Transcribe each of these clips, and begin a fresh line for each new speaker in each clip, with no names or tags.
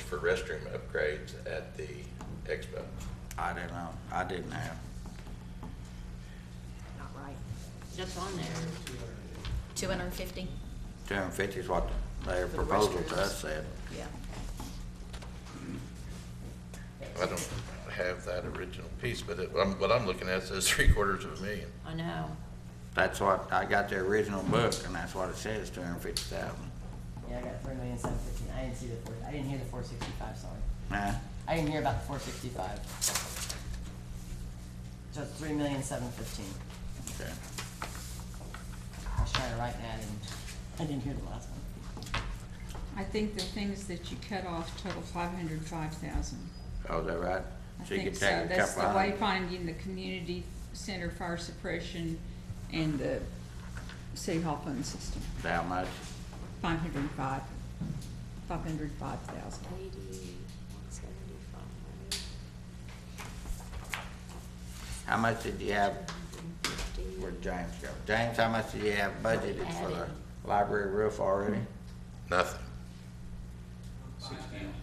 for restroom upgrades at the expo?
I didn't know, I didn't have.
Not right.
That's on there.
Two hundred and fifty?
Two hundred and fifty is what their
For the
proposal to
restrooms.
us said.
Yeah.
I don't have that original piece, but it, I'm- what I'm looking at says three quarters of a million.
I know.
That's what, I got the original book, and that's what it says, two hundred and fifty thousand.
Yeah, I got three million seven fifteen. I didn't see the four, I didn't hear the four sixty-five, sorry.
Nah,
I didn't hear about the four sixty-five. So it's three million seven fifteen.
okay.
I was trying to write that and I didn't hear the last one.
I think the things that you cut off total five hundred five thousand.
Oh, is that right?
I
So you
think
could
so.
take a
That's the
couple hundred.
wayfinding, the community center fire suppression, and the city hall phone system.
How much?
Five hundred and five, five hundred five thousand.
Eighty, one seventy-five,
How much did you have,
fifty.
where'd James go? James, how much did you have budgeted for
Added.
the library roof already?
Nothing.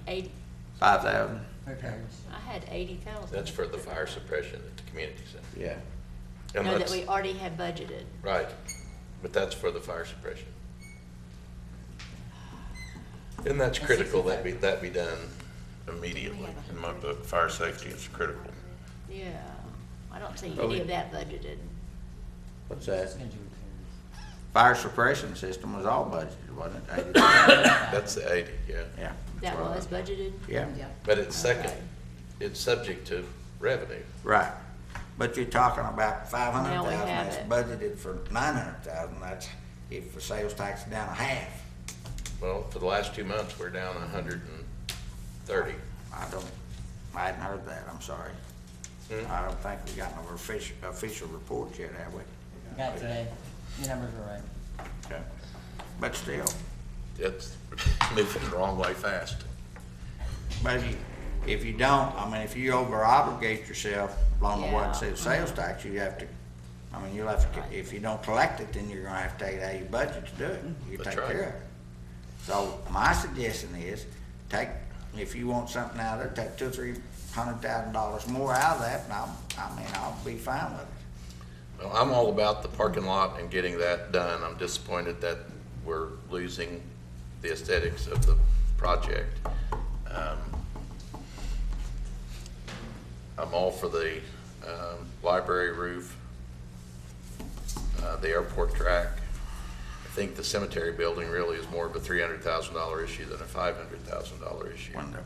Eight,
Five thousand?
Repairs.
I had eighty thousand.
That's for the fire suppression at the community center.
Yeah.
And
No, that
let's-
we already had budgeted.
Right, but that's for the fire suppression. And that's critical that be, that be done immediately. In my book, fire safety is critical.
Yeah, I don't see
Well, we-
any of that budgeted.
What's
It's
that?
gonna do repairs.
Fire suppression system was all budgeted, wasn't it? 80,000?
That's the eighty, yeah.
Yeah.
That
Well,
was budgeted?
Yeah,
Yeah.
But it's second,
Okay.
it's subject to revenue.
right. But you're talking about five hundred
Now we
thousand,
have
that's
it.
budgeted for nine hundred thousand, that's if the sales tax is down a half.
Well, for the last two months, we're down a hundred and thirty.
I don't, I hadn't heard that, I'm sorry.
Hmm.
I don't think we got no official, official report yet, have we?
You Got it today. Your numbers were right.
Okay. But still,
It's moving the wrong way fast.
but if you, if you don't, I mean, if you over obligate yourself along the way,
Yeah,
say, sales tax, you have to, I mean, you'll have to, if you don't collect it, then you're gonna have to take it out of your budget to do it. You
That's
take
right.
care of it. So my suggestion is, take, if you want something out of there, take two, or three hundred thousand dollars more out of that, and I'll, I mean, I'll be fine with it.
Well, I'm all about the parking lot and getting that done. I'm disappointed that we're losing the aesthetics of the project. Um, I'm all for the um, library roof, uh, the airport track. I think the cemetery building really is more of a $300,000 issue than a $500,000 issue.
when the,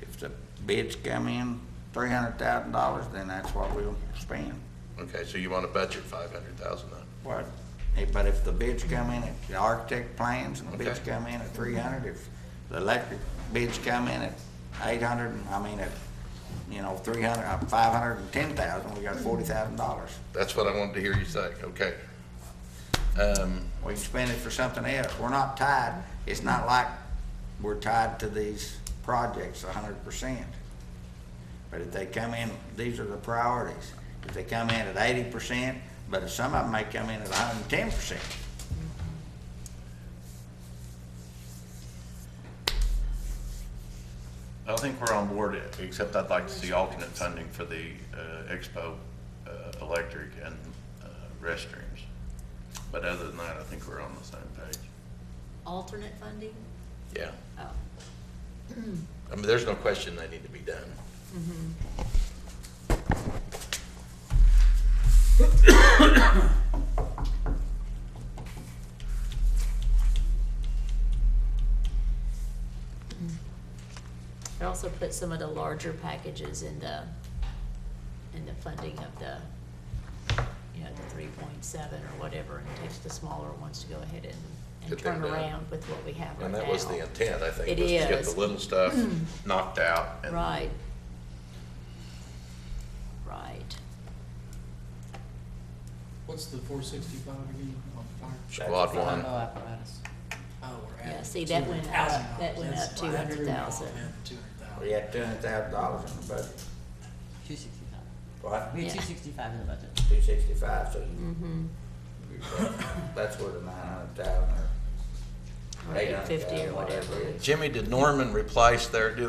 if the bids come in three hundred thousand dollars, then that's what we'll spend.
Okay, so you want to budget 500,000 then?
What? But if the bids come in, if the architect plans and the bids
Okay.
come in at three hundred, if the electric bids come in at eight hundred, I mean, at, you know, three hundred, uh, five hundred and ten thousand, we got forty thousand dollars.
That's what I wanted to hear you say, okay. Um,
We can spend it for something else. We're not tied, it's not like we're tied to these projects a hundred percent. But if they come in, these are the priorities. If they come in at eighty percent, but if some of them may come in at hundred and ten percent.
I think we're on board, except I'd like to see alternate funding for the uh, expo, uh, electric and uh, restrooms. But other than that, I think we're on the same page.
Alternate funding?
Yeah.
Oh,
I mean, there's no question they need to be done.
it also put some of the larger packages in the, in the funding of the, you know, the three point seven or whatever, and takes the smaller ones to go ahead and, and
Get them
turn
done.
around with what we have right now.
And that was the intent, I think,
It
was to get
is. Mm.
the little stuff knocked out. and-
Right. Right.
What's the four sixty-five again on fire?
Squad one.
Combo apparatus.
Oh, we're
Yeah,
adding
see, that went up-
$200,000.
that went
That's
up
why that threw me off.
200,000.
Yeah, 200,000.
We have two hundred thousand dollars in the budget.
Two sixty-five.
What?
We
Yeah.
had two sixty-five in the budget.
Two sixty-five, so you,
Mm-hmm.
that's where the nine hundred thousand or
Or
eight
eight
hundred
fifty
thousand,
or whatever.
whatever it is.
Jimmy, did Norman replace their, do